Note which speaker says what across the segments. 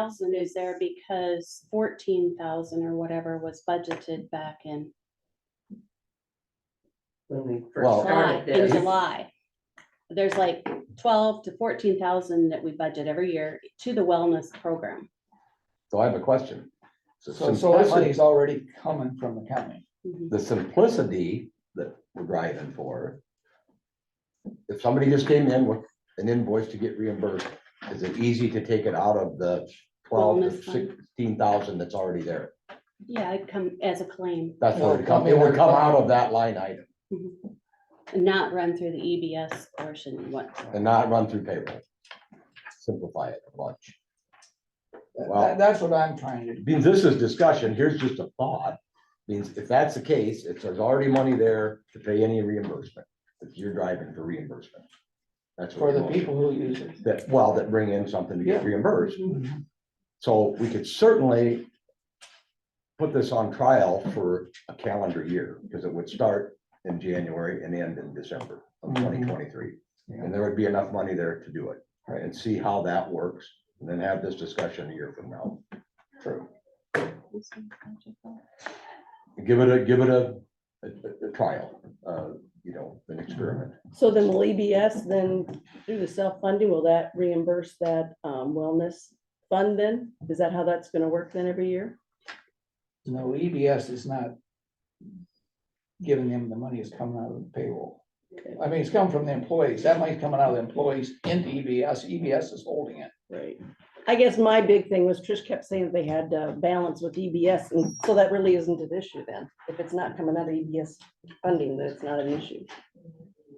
Speaker 1: thousand is there because fourteen thousand or whatever was budgeted back in
Speaker 2: when we
Speaker 1: July,
Speaker 3: Well-
Speaker 2: first started
Speaker 1: in
Speaker 2: this.
Speaker 1: July. There's like twelve to fourteen thousand that we budget every year to the wellness program.
Speaker 3: So I have a question. So
Speaker 4: So,
Speaker 3: since
Speaker 4: so
Speaker 3: that
Speaker 4: this
Speaker 3: money-
Speaker 4: money's already coming from the county.
Speaker 1: Mhm.
Speaker 3: the simplicity that we're driving for. If somebody just came in with an invoice to get reimbursed, is it easy to take it out of the twelve to
Speaker 1: Wellness fund.
Speaker 3: sixteen thousand that's already there?
Speaker 1: Yeah, it come as a claim,
Speaker 3: That's
Speaker 4: Well,
Speaker 3: what it come, it would come out of that line item
Speaker 1: not run through the EBS portion whatsoever.
Speaker 3: and not run through payroll. Simplify it a bunch.
Speaker 4: That-
Speaker 3: Wow.
Speaker 4: that- that's what I'm trying to, do.
Speaker 3: Means this is discussion, here's just a thought, means if that's the case, if there's already money there to pay any reimbursement, if you're driving for reimbursement. That's what
Speaker 4: for the
Speaker 3: we're-
Speaker 4: people who use it.
Speaker 3: that, well, that bring in something to get
Speaker 4: Yeah.
Speaker 3: reimbursed. So we could certainly put this on trial for a calendar year, because it would start in January and end in December of
Speaker 4: Mhm.
Speaker 3: twenty twenty-three.
Speaker 4: Yeah.
Speaker 3: And there would be enough money there to do it,
Speaker 4: Right.
Speaker 3: and see how that works, and then have this discussion a year from now. True. Give it a, give it a, a, a trial, uh, you know, an experiment.
Speaker 5: So then will EBS then through the self-funding, will that reimburse that um, wellness fund then? Is that how that's gonna work then every year?
Speaker 4: No, EBS E is not giving them the money, it's coming out of the payroll.
Speaker 5: Okay.
Speaker 4: I mean, it's coming from the employees, that money's coming out of the employees into E EBS, EBS is holding it.
Speaker 5: Right. I guess my big thing was Trish kept saying that they had uh balance with EBS, and so that really isn't an issue then. If it's not coming out of EBS funding, then it's not an issue.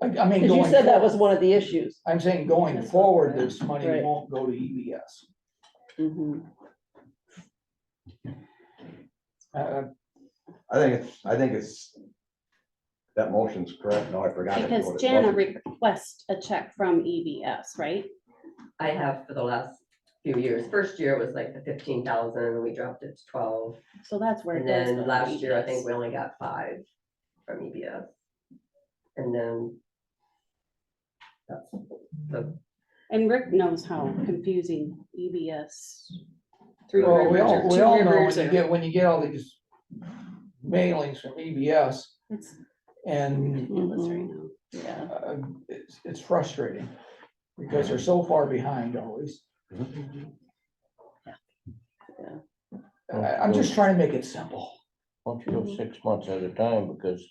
Speaker 4: I, I mean.
Speaker 5: Because you
Speaker 4: going
Speaker 5: said that was
Speaker 4: forward-
Speaker 5: one of the issues.
Speaker 4: I'm saying going
Speaker 5: That's what-
Speaker 4: forward, this money
Speaker 5: Right.
Speaker 4: won't go to E EBS. Mm-hmm.
Speaker 5: Mhm.
Speaker 4: Uh,
Speaker 3: I think it's, I think it's, that motion's correct, no, I forgot. it, what
Speaker 1: Because
Speaker 3: it
Speaker 1: Jana
Speaker 3: was.
Speaker 1: requests a check from EBS, right?
Speaker 2: I have for the last few years. First year was like the fifteen thousand, we dropped it to twelve.
Speaker 1: So that's where. it
Speaker 2: And
Speaker 1: goes E
Speaker 2: then
Speaker 1: with
Speaker 2: last year, I
Speaker 1: EBS.
Speaker 2: think we only got five from EBS. And then that's the,
Speaker 1: And Rick knows how confusing E EBS. Three
Speaker 4: Well, we
Speaker 1: Rivers
Speaker 4: all,
Speaker 1: or
Speaker 4: we
Speaker 1: Two
Speaker 4: all know
Speaker 1: Rivers
Speaker 4: when you
Speaker 1: or-
Speaker 4: get, when you get all these mailings from EBS
Speaker 1: It's
Speaker 4: and
Speaker 1: ridiculous right now.
Speaker 5: Yeah,
Speaker 4: uh, it's, it's frustrating because they're so far behind always.
Speaker 5: Yeah.
Speaker 3: Oh,
Speaker 4: And I, am just trying to make it simple.
Speaker 6: Why don't you go six months at a time, because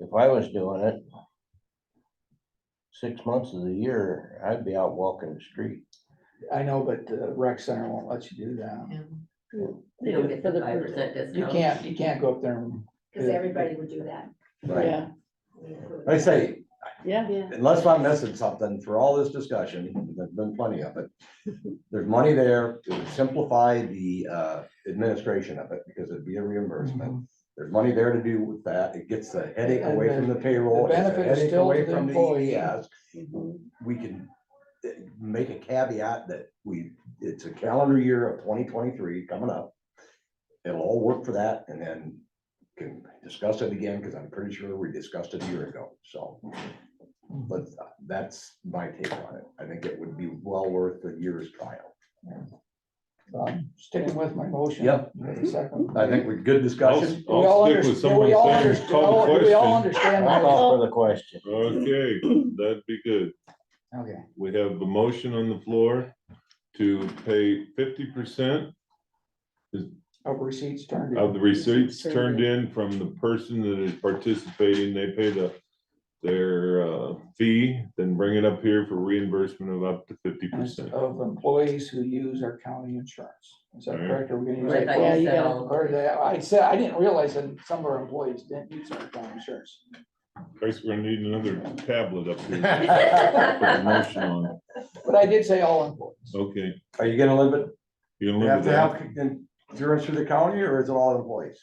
Speaker 6: if I was doing it, six months of the year, I'd be out walking the street.
Speaker 4: I know, but the rec center won't let you do that.
Speaker 2: they don't get the five percent discount.
Speaker 4: You can't, you can't go up there and,
Speaker 7: Because everybody would do that.
Speaker 3: Mm-hmm. Right,
Speaker 5: yeah,
Speaker 3: I say,
Speaker 5: yeah.
Speaker 1: Yeah,
Speaker 3: unless I'm missing something for all this discussion, there's been plenty of it. There's money there to simplify the uh, administration of it because it'd be a reimbursement. There's money there to do with that. It gets the headache away from the payroll.
Speaker 4: The
Speaker 3: it's a
Speaker 4: benefit is
Speaker 3: headache
Speaker 4: still
Speaker 3: away
Speaker 4: to the
Speaker 3: from
Speaker 4: employee. Mm-hmm.
Speaker 3: EBS.
Speaker 5: Mhm.
Speaker 3: We can uh, make a caveat that we, it's a calendar year of twenty twenty-three coming up. It'll all work for that and then can discuss it again because I'm pretty sure we discussed it a year ago, so. But that's my take on it. I think it would be well worth the year's trial.
Speaker 4: um, sticking with my motion.
Speaker 3: Yep. I think we're good
Speaker 8: I'll,
Speaker 3: discussion.
Speaker 8: I'll stick with
Speaker 4: Do we all
Speaker 8: somebody's
Speaker 4: understand-
Speaker 8: saying, call
Speaker 4: do we
Speaker 8: the
Speaker 4: all
Speaker 8: question.
Speaker 4: understand
Speaker 6: I
Speaker 4: that?
Speaker 6: call for the question.
Speaker 8: Okay, that'd be good.
Speaker 4: Okay,
Speaker 8: We have a motion on the floor to pay fifty percent
Speaker 4: of receipts turned
Speaker 8: of
Speaker 4: in.
Speaker 8: the receipts turned in from the person that is participating. They pay the, their, uh, fee, then bring it up here for reimbursement of up to fifty
Speaker 4: as
Speaker 8: percent.
Speaker 4: Of employees who use our county insurance. Is that
Speaker 8: Right.
Speaker 4: correct? Are we gonna use
Speaker 2: Right,
Speaker 4: that?
Speaker 2: I
Speaker 5: Yeah,
Speaker 2: guess
Speaker 5: you
Speaker 2: that
Speaker 5: gotta-
Speaker 2: all-
Speaker 4: Or that, I said, I didn't realize that some of our employees didn't use our county insurance.
Speaker 8: Guys, we're gonna need another tablet up here. Put the
Speaker 2: Right.
Speaker 8: motion on it.
Speaker 4: But I did say all employees.
Speaker 8: Okay,
Speaker 3: Are you gonna live it?
Speaker 8: you gonna
Speaker 3: You
Speaker 8: live
Speaker 3: have
Speaker 8: with
Speaker 3: to
Speaker 8: that?
Speaker 3: have insurance through the county or is it all employees?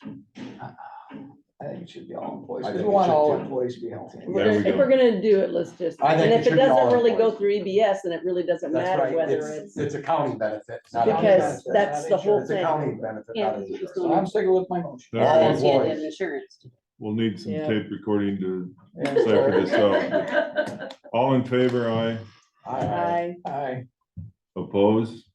Speaker 4: I think it should be all employees,
Speaker 3: I
Speaker 4: because we
Speaker 3: think it
Speaker 4: want
Speaker 3: should
Speaker 4: all
Speaker 3: too.
Speaker 4: employees to be healthy.
Speaker 5: If we're
Speaker 8: There we
Speaker 5: gonna- if
Speaker 8: go.
Speaker 5: we're gonna do it, let's just,
Speaker 3: I think
Speaker 5: and
Speaker 3: it
Speaker 5: if it
Speaker 3: should be all
Speaker 5: doesn't really go
Speaker 3: employees.
Speaker 5: through EBS, then it really doesn't
Speaker 3: That's
Speaker 5: matter
Speaker 3: right.
Speaker 5: whether
Speaker 3: It's,
Speaker 5: it's.
Speaker 3: it's a county benefit. not a-
Speaker 5: Because
Speaker 4: benefit, not
Speaker 5: that's the whole
Speaker 4: insurance.
Speaker 3: It's a
Speaker 5: thing.
Speaker 3: county benefit, not an insurance.
Speaker 4: So I'm sticking with my motion.
Speaker 8: All right,
Speaker 1: that's the end of
Speaker 3: employees.
Speaker 1: insurance.
Speaker 8: We'll need some
Speaker 5: Yeah.
Speaker 8: tape recording to
Speaker 4: And
Speaker 8: cipher
Speaker 4: so-
Speaker 8: this out. All in favor, aye.
Speaker 4: Aye.
Speaker 5: I-
Speaker 4: Aye.
Speaker 8: Opposed?